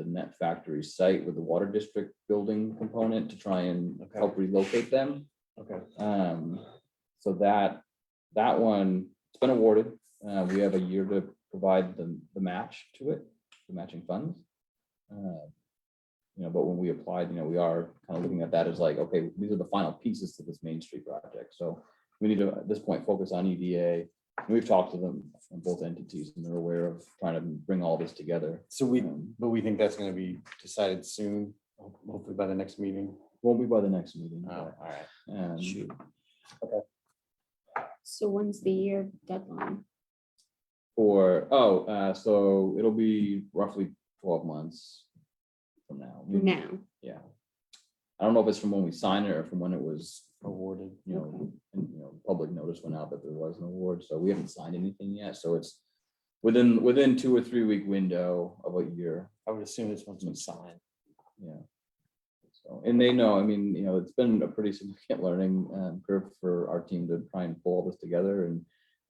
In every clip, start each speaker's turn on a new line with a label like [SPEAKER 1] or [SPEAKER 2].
[SPEAKER 1] net factory site with the water district building component to try and
[SPEAKER 2] Okay.
[SPEAKER 1] help relocate them.
[SPEAKER 2] Okay.
[SPEAKER 1] Um, so that, that one, it's been awarded. Uh, we have a year to provide the, the match to it, the matching funds. Uh, You know, but when we applied, you know, we are kind of looking at that as like, okay, these are the final pieces to this Main Street project. So we need to, at this point, focus on EDA. We've talked to them, both entities, and they're aware of trying to bring all this together.
[SPEAKER 2] So we,
[SPEAKER 1] Um,
[SPEAKER 2] but we think that's gonna be decided soon, ho- hopefully by the next meeting.
[SPEAKER 1] Won't be by the next meeting.
[SPEAKER 2] Oh,
[SPEAKER 1] but,
[SPEAKER 2] all right.
[SPEAKER 1] um,
[SPEAKER 2] Shoot.
[SPEAKER 3] So when's the year deadline?
[SPEAKER 1] For, oh, uh, so it'll be roughly twelve months from now. We-
[SPEAKER 3] Now,
[SPEAKER 1] Yeah. I don't know if it's from when we signed it or from when it was,
[SPEAKER 2] Awarded.
[SPEAKER 1] you know, and, you know, public notice went out that there was an award, so we haven't signed anything yet, so it's within, within two or three week window of a year,
[SPEAKER 2] I would assume this one's been signed.
[SPEAKER 1] yeah. So, and they know, I mean, you know, it's been a pretty significant learning um, curve for our team to try and pull all this together and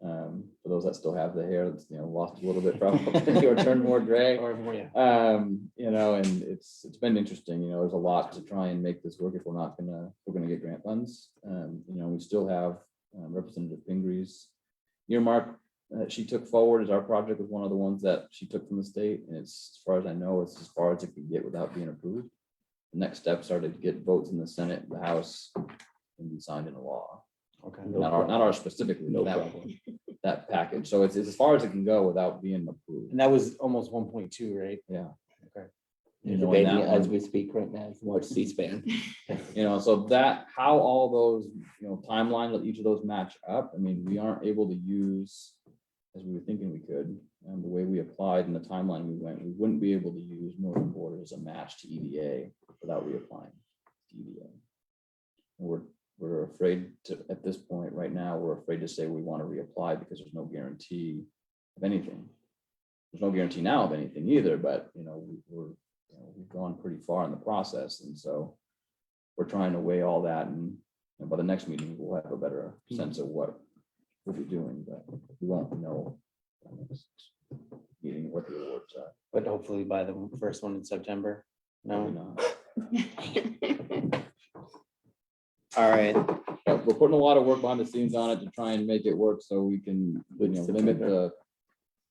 [SPEAKER 1] um, for those that still have the hair, that's, you know, lost a little bit probably, or turned more gray.
[SPEAKER 2] Or, everyone- yeah.
[SPEAKER 1] Um, you know, and it's, it's been interesting, you know, there's a lot to try and make this work if we're not gonna, if we're gonna get grant funds. Um, you know, we still have um, Representative Pingree's earmark that she took forward as our project was one of the ones that she took from the state. And it's, as far as I know, it's as far as it can get without being approved. The next steps are to get votes in the Senate, the House, and be signed into law.
[SPEAKER 2] Okay.
[SPEAKER 1] Not our, not our specifically, but that, that package. So it's, it's as far as it can go without being approved.
[SPEAKER 2] And that was almost one point two, right?
[SPEAKER 1] Yeah.
[SPEAKER 2] Okay.
[SPEAKER 1] You
[SPEAKER 4] You're
[SPEAKER 1] know, and
[SPEAKER 4] debating
[SPEAKER 1] that
[SPEAKER 4] it as
[SPEAKER 1] one-
[SPEAKER 4] we speak right now, you can watch C-SPAN.
[SPEAKER 1] You know, so that, how all those, you know, timelines of each of those match up, I mean, we aren't able to use. As we were thinking we could, and the way we applied and the timeline we went, we wouldn't be able to use Northern Border as a match to EDA without reapplying. to EDA. We're, we're afraid to, at this point, right now, we're afraid to say we want to reapply because there's no guarantee of anything. There's no guarantee now of anything either, but, you know, we- we're, you know, we've gone pretty far in the process, and so we're trying to weigh all that and, and by the next meeting, we'll have a better
[SPEAKER 2] Hmm.
[SPEAKER 1] sense of what we'll be doing, but we won't know. by the next Meeting what the awards are.
[SPEAKER 2] But hopefully by the first one in September.
[SPEAKER 1] Probably
[SPEAKER 2] No,
[SPEAKER 1] not.
[SPEAKER 2] all right.
[SPEAKER 1] But We're putting a lot of work behind the scenes on it to try and make it work so we can, you know, limit the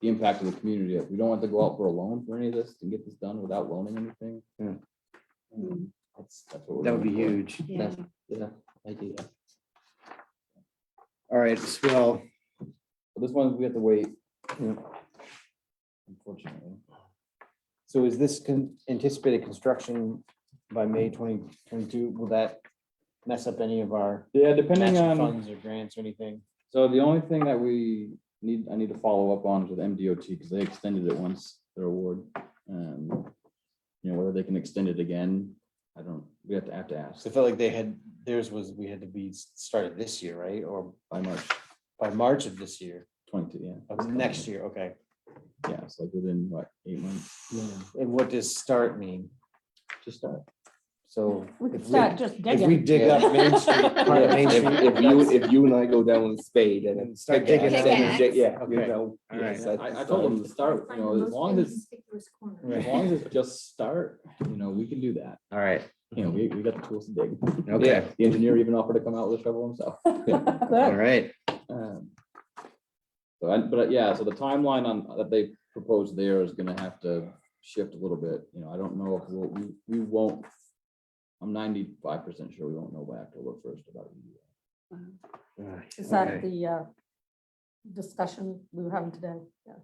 [SPEAKER 1] the impact of the community. We don't want to go out for a loan for any of this and get this done without loaning anything.
[SPEAKER 2] Yeah.
[SPEAKER 3] Mm,
[SPEAKER 1] That's, that's what. we're
[SPEAKER 2] That would be
[SPEAKER 1] looking for.
[SPEAKER 2] huge.
[SPEAKER 3] yeah.
[SPEAKER 1] Yeah.
[SPEAKER 4] Idea.
[SPEAKER 2] All right, well,
[SPEAKER 1] But This one, we have to wait.
[SPEAKER 2] Yeah.
[SPEAKER 1] Unfortunately.
[SPEAKER 2] so is this con- anticipated construction by May twenty twenty-two? Will that mess up any of our
[SPEAKER 1] Yeah, depending
[SPEAKER 2] matching
[SPEAKER 1] on.
[SPEAKER 2] funds or grants or anything?
[SPEAKER 1] So the only thing that we need, I need to follow up on is with MDOT, because they extended it once, their award. Um, You know, whether they can extend it again, I don't, we have to, have to ask
[SPEAKER 2] So I felt like they had, theirs was, we had to be s- started this year, right? Or
[SPEAKER 1] by March
[SPEAKER 2] by March of this year,
[SPEAKER 1] twenty, yeah.
[SPEAKER 2] of next year, okay.
[SPEAKER 1] Yeah, it's like within, what, eight months
[SPEAKER 2] And what does start mean?
[SPEAKER 1] to start.
[SPEAKER 2] So.
[SPEAKER 5] We
[SPEAKER 2] if
[SPEAKER 5] could start just
[SPEAKER 2] If we
[SPEAKER 5] digging.
[SPEAKER 2] dig up Main Street, part of Main
[SPEAKER 4] If
[SPEAKER 2] Street.
[SPEAKER 4] if you, if you and I go down with a spade and then.
[SPEAKER 2] And start digging
[SPEAKER 3] up.
[SPEAKER 4] Yeah, yeah, you
[SPEAKER 2] Okay.
[SPEAKER 4] know.
[SPEAKER 2] All right.
[SPEAKER 4] yes, that's
[SPEAKER 1] I, I told them
[SPEAKER 4] the
[SPEAKER 1] to start, you know, as long as, as
[SPEAKER 2] Right.
[SPEAKER 1] long as it's just start, you know, we can do that.
[SPEAKER 2] All right,
[SPEAKER 1] You know, we, we got the tools to dig.
[SPEAKER 2] okay,
[SPEAKER 1] The engineer even offered to come out with a shovel himself.
[SPEAKER 2] all right.
[SPEAKER 1] Um, So, I- but uh, yeah, so the timeline on, uh, that they proposed there is gonna have to shift a little bit, you know, I don't know if we'll, we, we won't. I'm ninety-five percent sure we won't know by October first about it.
[SPEAKER 5] Is that the uh, discussion we were having today? Yeah.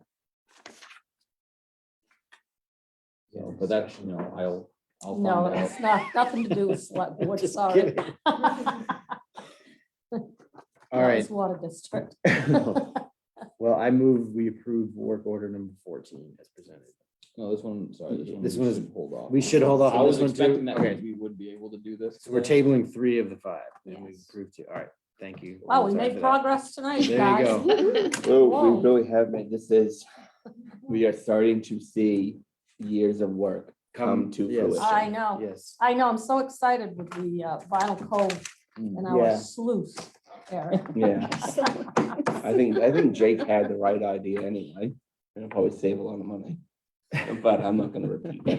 [SPEAKER 1] So, But that's, you know, I'll, I'll
[SPEAKER 5] No,
[SPEAKER 1] find out.
[SPEAKER 5] it's not, nothing to do with select board,
[SPEAKER 2] Just
[SPEAKER 5] sorry.
[SPEAKER 2] kidding.
[SPEAKER 5] All
[SPEAKER 2] All right,
[SPEAKER 5] Water district.
[SPEAKER 2] well, I move we approve work order number fourteen as presented.
[SPEAKER 1] No, this one, sorry, this one.
[SPEAKER 2] This
[SPEAKER 1] we
[SPEAKER 2] one is-
[SPEAKER 1] should Hold off.
[SPEAKER 2] We should hold off
[SPEAKER 1] I
[SPEAKER 2] on
[SPEAKER 1] was
[SPEAKER 2] this one
[SPEAKER 1] expecting
[SPEAKER 2] too.
[SPEAKER 1] that
[SPEAKER 2] Okay,
[SPEAKER 1] we would be able to do this.
[SPEAKER 2] so we're
[SPEAKER 1] today.
[SPEAKER 2] tabling three of the five and we
[SPEAKER 5] Yes.
[SPEAKER 2] approved two. All right, thank you.
[SPEAKER 5] Wow, we
[SPEAKER 2] Sorry for
[SPEAKER 5] made
[SPEAKER 2] that.
[SPEAKER 5] progress tonight,
[SPEAKER 2] There you
[SPEAKER 5] guys.
[SPEAKER 4] Well,
[SPEAKER 5] Whoa.
[SPEAKER 4] we really have, made This is, we are starting to see years of work come to
[SPEAKER 2] yes.
[SPEAKER 4] fruition.
[SPEAKER 5] I know,
[SPEAKER 2] Yes.
[SPEAKER 5] I know, I'm so excited with the uh, vinyl cove
[SPEAKER 1] Mm.
[SPEAKER 5] and
[SPEAKER 4] Yeah.
[SPEAKER 5] our sluice, Eric.
[SPEAKER 4] Yeah, I think, I think Jake had the right idea anyway. It'll probably save a lot of money, but I'm not gonna repeat that.